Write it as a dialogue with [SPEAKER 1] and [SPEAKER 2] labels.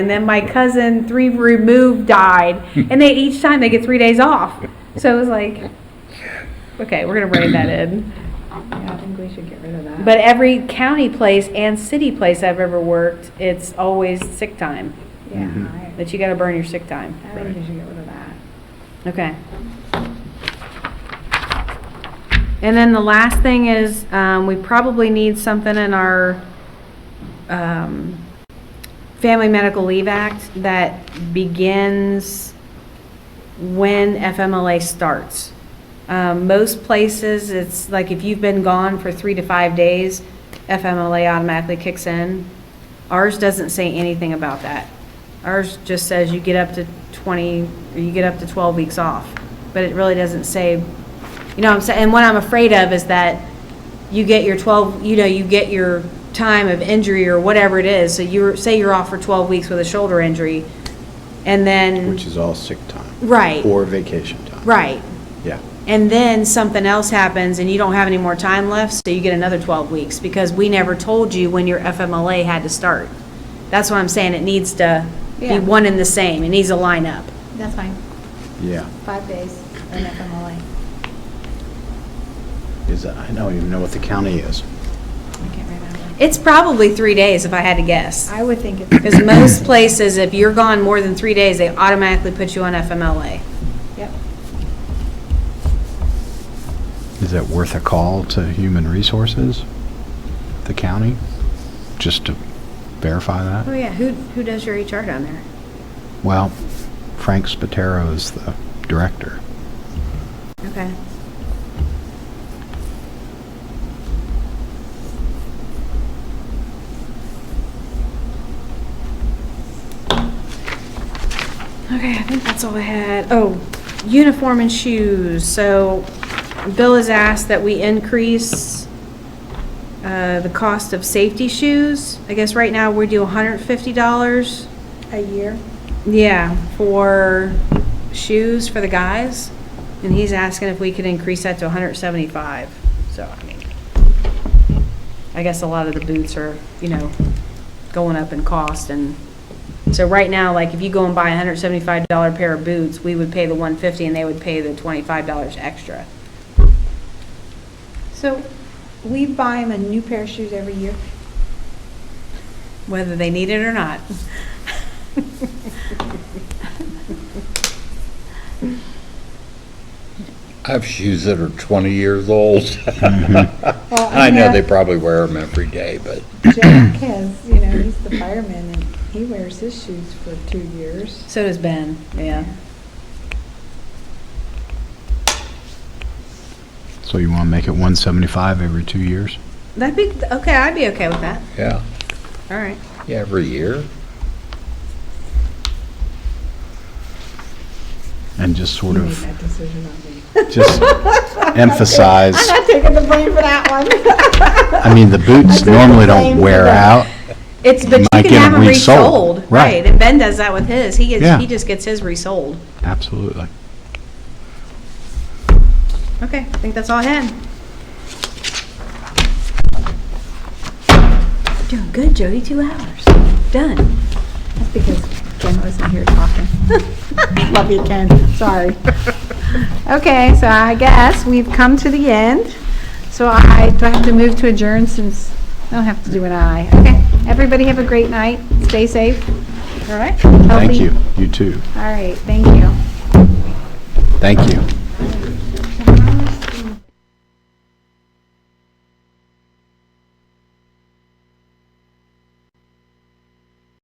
[SPEAKER 1] And then my cousin, three removed, died. And they each time they get three days off. So it was like, okay, we're going to rein that in.
[SPEAKER 2] Yeah, I think we should get rid of that.
[SPEAKER 1] But every county place and city place I've ever worked, it's always sick time,
[SPEAKER 2] Yeah,
[SPEAKER 3] Mm-hmm.
[SPEAKER 2] I,
[SPEAKER 1] that you got to burn your sick time.
[SPEAKER 2] I think we should get rid of that.
[SPEAKER 1] Okay. And then the last thing is, um, we probably need something in our, um, Family Medical Leave Act that begins when FMLA starts. Um, most places, it's like if you've been gone for three to five days, FMLA automatically kicks in. Ours doesn't say anything about that. Ours just says you get up to 20, or you get up to 12 weeks off, but it really doesn't say, you know what I'm saying? And what I'm afraid of is that you get your 12, you know, you get your time of injury or whatever it is, so you're, say you're off for 12 weeks with a shoulder injury, and then,
[SPEAKER 3] Which is all sick time.
[SPEAKER 1] Right.
[SPEAKER 3] Or vacation time.
[SPEAKER 1] right,
[SPEAKER 3] Yeah.
[SPEAKER 1] and then something else happens and you don't have any more time left, so you get another 12 weeks because we never told you when your FMLA had to start. That's what I'm saying, it needs to be
[SPEAKER 2] Yeah.
[SPEAKER 1] one and the same, it needs to line up.
[SPEAKER 2] That's fine,
[SPEAKER 3] Yeah.
[SPEAKER 2] five days in FMLA.
[SPEAKER 3] Is, that- I don't even know what the county is.
[SPEAKER 2] I can't remember.
[SPEAKER 1] It's probably three days if I had to guess.
[SPEAKER 2] I would think it's,
[SPEAKER 1] Because most places, if you're gone more than three days, they automatically put you on FMLA.
[SPEAKER 2] yep,
[SPEAKER 3] Is it worth a call to Human Resources, the county, just to verify
[SPEAKER 1] Oh,
[SPEAKER 3] that?
[SPEAKER 1] yeah, who, who does your HR down there?
[SPEAKER 3] Well, Frank Spataro is the director.
[SPEAKER 1] Okay. Okay, I think that's all I had. Oh, uniform and shoes. So Bill has asked that we increase uh, the cost of safety shoes. I guess right now we do $150.
[SPEAKER 2] a year.
[SPEAKER 1] Yeah, for shoes for the guys, and he's asking if we could increase that to hundred seventy-five, so, I mean, I guess a lot of the boots are, you know, going up in cost, and, so right now, like, if you go and buy a hundred seventy-five dollar pair of boots, we would pay the one fifty, and they would pay the twenty-five dollars extra.
[SPEAKER 2] So we buy him a new pair of shoes every year.
[SPEAKER 1] whether they need it or not.
[SPEAKER 4] I have shoes that are 20 years old.
[SPEAKER 2] Well,
[SPEAKER 4] I know they probably wear them every day, but
[SPEAKER 2] Jack has, you know, he's the fireman and he wears his shoes for two years.
[SPEAKER 1] So does Ben, yeah.
[SPEAKER 3] So you want to make it 175 every two years?
[SPEAKER 1] That'd be, okay, I'd be okay with that,
[SPEAKER 4] yeah,
[SPEAKER 1] all right.
[SPEAKER 4] yeah, every year.
[SPEAKER 3] And just sort
[SPEAKER 2] He made that
[SPEAKER 3] of,
[SPEAKER 2] decision on me.
[SPEAKER 3] just emphasize,
[SPEAKER 2] I'm not taking the blame for that one.
[SPEAKER 3] I mean, the boots normally don't wear out.
[SPEAKER 1] It's, but you
[SPEAKER 3] Might
[SPEAKER 1] can
[SPEAKER 3] get
[SPEAKER 1] have
[SPEAKER 3] them
[SPEAKER 1] them
[SPEAKER 3] resold,
[SPEAKER 1] resold,
[SPEAKER 3] right.
[SPEAKER 1] right, and Ben does that with his, he
[SPEAKER 3] Yeah.
[SPEAKER 1] gets, he just gets his resold.
[SPEAKER 3] Absolutely.
[SPEAKER 1] Okay, I think that's all I had. Doing good, Jody, two hours, done.
[SPEAKER 2] That's because Ken wasn't here talking. Love you, Ken, sorry. Okay, so I guess we've come to the end. So I, do I have to move to adjourn since, I don't have to do an aye. Okay, everybody have a great night, stay safe. All right.
[SPEAKER 3] Thank you. You too.
[SPEAKER 2] All right, thank you.
[SPEAKER 3] Thank you.